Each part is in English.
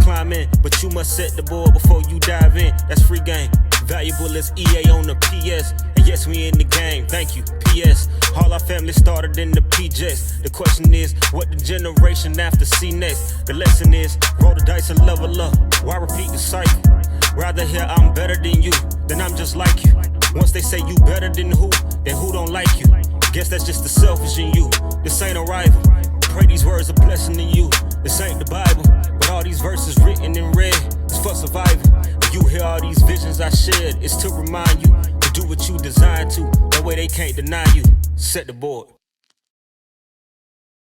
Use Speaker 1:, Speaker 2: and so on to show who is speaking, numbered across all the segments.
Speaker 1: Climb in, but you must set the board before you dive in. That's free game. Valuable as EA on the PS. And yes, we in the game. Thank you. PS. All our family started in the PJs. The question is, what the generation after see next? The lesson is, roll the dice and level up. Why repeat the cycle? Rather hear I'm better than you, than I'm just like you. Once they say you better than who, then who don't like you? Guess that's just the selfish in you. This ain't a rival. Pray these words a blessing to you. This ain't the Bible, but all these verses written in red is for survival. When you hear all these visions I shared, it's to remind you to do what you designed to. That way they can't deny you. Set the board.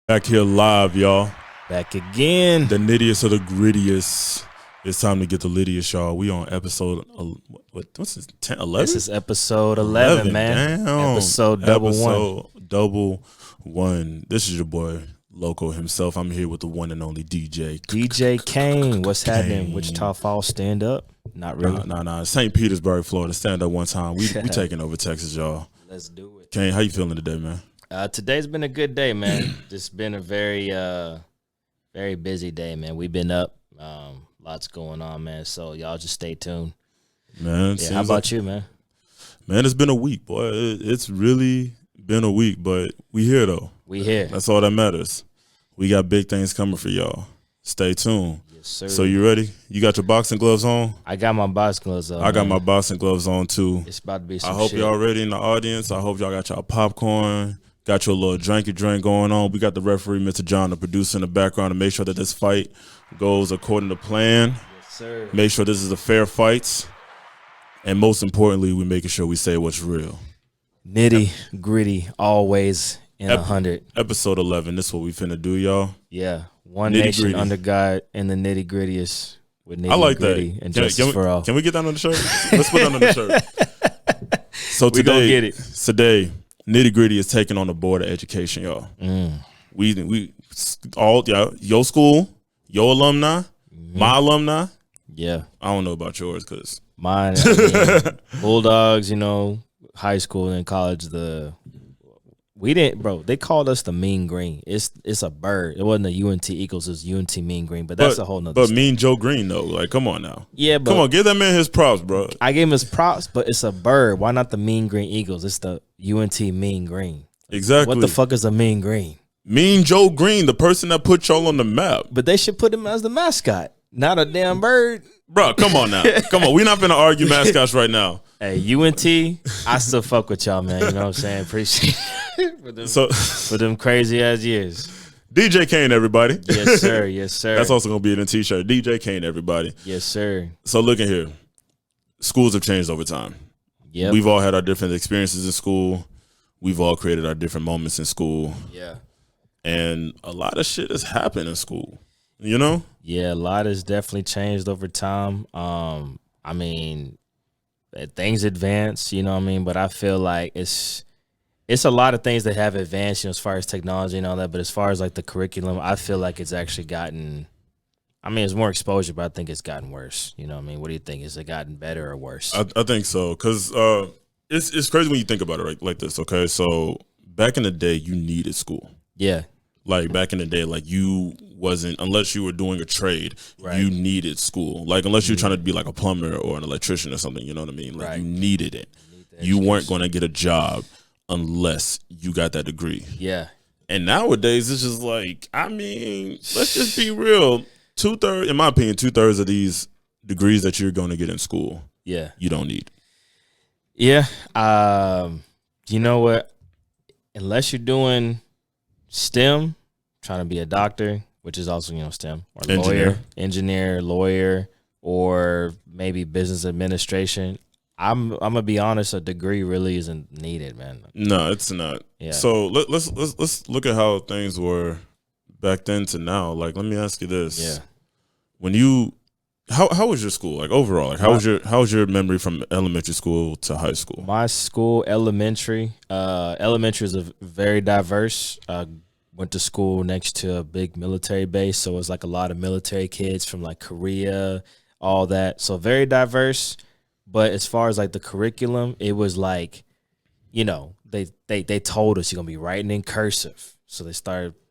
Speaker 2: Back here live, y'all.
Speaker 3: Back again.
Speaker 2: The nittiest of the grittiest. It's time to get the littiest, y'all. We on episode el- what, what's this? 10, 11?
Speaker 3: This is episode 11, man.
Speaker 2: Damn.
Speaker 3: Episode double one.
Speaker 2: Episode double one. This is your boy Loco himself. I'm here with the one and only DJ.
Speaker 3: DJ Kane, what's happening?
Speaker 2: Kane.
Speaker 3: Wichita Falls stand up? Not really.
Speaker 2: Nah, nah, nah. St. Petersburg, Florida. Stand up one time. We we taking over Texas, y'all.
Speaker 3: Let's do it.
Speaker 2: Kane, how you feeling today, man?
Speaker 3: Uh, today's been a good day, man. Just been a very, uh, very busy day, man. We've been up. Um, lots going on, man. So y'all just stay tuned.
Speaker 2: Man,
Speaker 3: Yeah,
Speaker 2: seems
Speaker 3: how about
Speaker 2: like-
Speaker 3: you, man?
Speaker 2: Man, it's been a week, boy. It- It's really been a week, but we here though.
Speaker 3: We here.
Speaker 2: That's all that matters. We got big things coming for y'all. Stay tuned.
Speaker 3: Yes, sir.
Speaker 2: So you ready? You got your boxing gloves on?
Speaker 3: I got my box gloves on.
Speaker 2: I got
Speaker 3: man.
Speaker 2: my boxing gloves on too.
Speaker 3: It's about to be
Speaker 2: I
Speaker 3: some
Speaker 2: hope
Speaker 3: shit.
Speaker 2: y'all ready in the audience. I hope y'all got y'all popcorn, got your little drinky drink going on. We got the referee, Mr. John, the producer in the background to make sure that this fight goes according to plan.
Speaker 3: Yes, sir.
Speaker 2: Make sure this is a fair fight. And most importantly, we making sure we say what's real.
Speaker 3: Nitty gritty, always in a
Speaker 2: Ep-
Speaker 3: hundred.
Speaker 2: Episode 11, this what we finna do, y'all.
Speaker 3: Yeah, one
Speaker 2: Nitty
Speaker 3: nation
Speaker 2: gritty.
Speaker 3: under God and the nitty grittiest with nitty
Speaker 2: I like that.
Speaker 3: gritty and
Speaker 2: Can-
Speaker 3: justice
Speaker 2: can we,
Speaker 3: for all.
Speaker 2: Can we get that on the shirt? Let's put that on the shirt. So
Speaker 3: We gonna
Speaker 2: today,
Speaker 3: get it.
Speaker 2: today, nitty gritty is taking on the board of education, y'all.
Speaker 3: Mm.
Speaker 2: We we all y'all, your school, your alumni,
Speaker 3: Mm-hmm.
Speaker 2: my alumni.
Speaker 3: yeah,
Speaker 2: I don't know about yours because
Speaker 3: mine. I mean, Bulldogs, you know, high school and college. The we didn't, bro. They called us the Mean Green. It's it's a bird. It wasn't a UNT Eagles. It's UNT Mean Green. But that's
Speaker 2: but,
Speaker 3: a whole nother.
Speaker 2: But
Speaker 3: story.
Speaker 2: me and Joe Green though, like come on now,
Speaker 3: yeah, but
Speaker 2: come on, give that man his props, bro.
Speaker 3: I gave him his props. But it's a bird. Why not the Mean Green Eagles? It's the UNT Mean Green.
Speaker 2: Exactly.
Speaker 3: What the fuck is a Mean Green?
Speaker 2: Mean Joe Green, the person that put y'all on the map,
Speaker 3: But they should put him as the mascot, not a damn bird.
Speaker 2: bro. Come on now, come on. We're not gonna argue mascots right now.
Speaker 3: Hey, UNT, I still fuck with y'all, man. You know what I'm saying? Appreciate it for them,
Speaker 2: So,
Speaker 3: for them crazy ass years.
Speaker 2: DJ Kane, everybody.
Speaker 3: Yes, sir. Yes, sir.
Speaker 2: That's also gonna be in a t-shirt. DJ Kane, everybody.
Speaker 3: Yes, sir.
Speaker 2: So look at here. Schools have changed over time.
Speaker 3: Yep.
Speaker 2: We've all had our different experiences in school. We've all created our different moments in school.
Speaker 3: yeah.
Speaker 2: And a lot of shit has happened in school. You know?
Speaker 3: Yeah, a lot has definitely changed over time. Um, I mean, uh, things advance, you know what I mean? But I feel like it's it's a lot of things that have advanced, you know, as far as technology and all that. But as far as like the curriculum, I feel like it's actually gotten I mean, it's more exposure, but I think it's gotten worse. You know what I mean? What do you think? Is it gotten better or worse?
Speaker 2: I, I think so. Cause uh it's it's crazy when you think about it like, like this, okay? So back in the day you needed school.
Speaker 3: yeah.
Speaker 2: like back in the day like you wasn't unless you were doing a trade
Speaker 3: Right.
Speaker 2: you needed school like unless you're trying to be like a plumber or an electrician or something you know what i mean like
Speaker 3: Right.
Speaker 2: you needed it you weren't going to get a job unless you got that degree
Speaker 3: Yeah.
Speaker 2: and nowadays it's just like i mean let's just be real two-thirds in my opinion two-thirds of these degrees that you're going to get in school
Speaker 3: Yeah.
Speaker 2: you don't need
Speaker 3: Yeah. Um, you know what? Unless you're doing STEM, trying to be a doctor, which is also, you know, STEM, or lawyer,
Speaker 2: Engineer.
Speaker 3: engineer, lawyer, or maybe business administration. I'm I'm gonna be honest, a degree really isn't needed, man.
Speaker 2: no it's not
Speaker 3: Yeah.
Speaker 2: so let, let's let's let's look at how things were back then to now like let me ask you this
Speaker 3: Yeah.
Speaker 2: when you how how was your school like overall like how was your how was your memory from elementary school to high school
Speaker 3: My school, elementary, uh, elementary is a v- very diverse. Uh, went to school next to a big military base, so it was like a lot of military kids from like Korea, all that. So very diverse. But as far as like the curriculum, it was like, you know, they they they told us you're gonna be writing in cursive, so they started